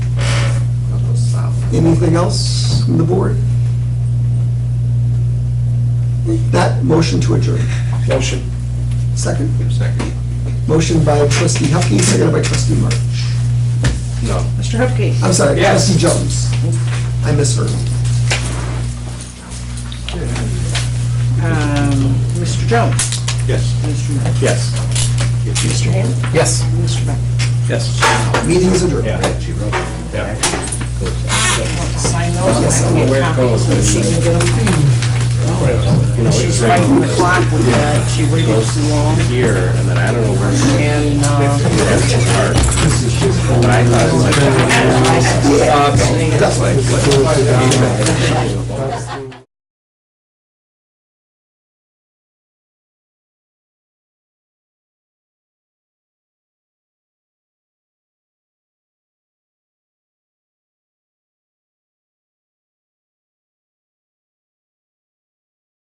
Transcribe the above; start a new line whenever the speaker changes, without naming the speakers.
Anything else from the board? With That, motion to adjourn.
Motion.
Second,
Second.
motion by trustee Hupkey, seconded by trustee March.
No.
Mr. Hupkey.
I'm sorry,
Yes.
trustee Jones. I misheard.
Um, Mr. Jones.
Yes.
Mr. March.
Yes.
Mr. Haley.
Yes.
Mr. Beck.
Yes.
Meeting is adjourned.
Yeah.
Want to sign those? Yes, I'm aware of those. She can get them. She's fighting the clock with that. She waited too long.
Here, and then I don't know where.
And, uh,
That's why.